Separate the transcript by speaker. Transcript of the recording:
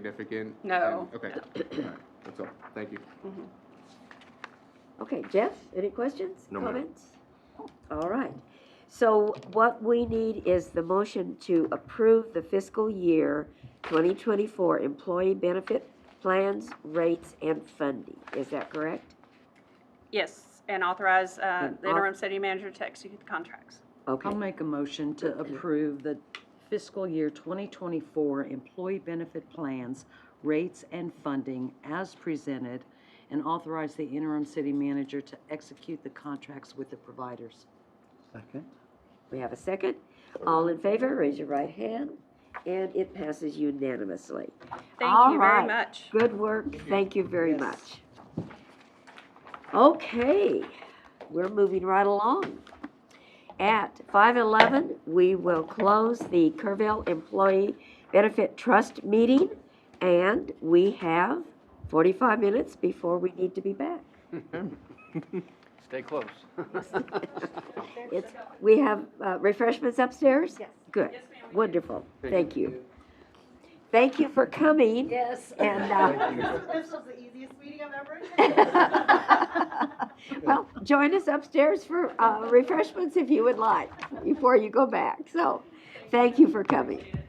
Speaker 1: significant?
Speaker 2: No.
Speaker 1: And- Okay, all right, that's all, thank you.
Speaker 3: Okay, Jeff, any questions,
Speaker 4: No, ma'am.
Speaker 3: comments? All right. So what we need is the motion to approve the fiscal year 2024 employee benefit plans, rates, and funding. Is that correct?
Speaker 2: Yes, and authorize uh,
Speaker 3: And
Speaker 2: the interim city manager to execute the contracts.
Speaker 3: Okay,
Speaker 5: I'll make a motion to approve the fiscal year 2024 employee benefit plans, rates, and funding as presented, and authorize the interim city manager to execute the contracts with the providers.
Speaker 4: Second.
Speaker 3: we have a second. All in favor, raise your right hand, and it passes unanimously.
Speaker 2: Thank
Speaker 3: All
Speaker 2: you very
Speaker 3: right.
Speaker 2: much.
Speaker 3: Good work, thank you very
Speaker 5: Yes.
Speaker 3: much. Okay, we're moving right along. At five eleven, we will close the Kerrville Employee Benefit Trust meeting, and we have forty-five minutes before we need to be back.
Speaker 6: Stay close.
Speaker 3: It's, we have uh, refreshments upstairs? Yes. Good,
Speaker 2: Yes, ma'am, we do.
Speaker 3: wonderful, thank you. Thank you for coming. Yes. And, uh,
Speaker 7: This was the easiest meeting I've ever
Speaker 3: Well, join us upstairs for uh, refreshments if you would like, before you go back. So, thank you for coming.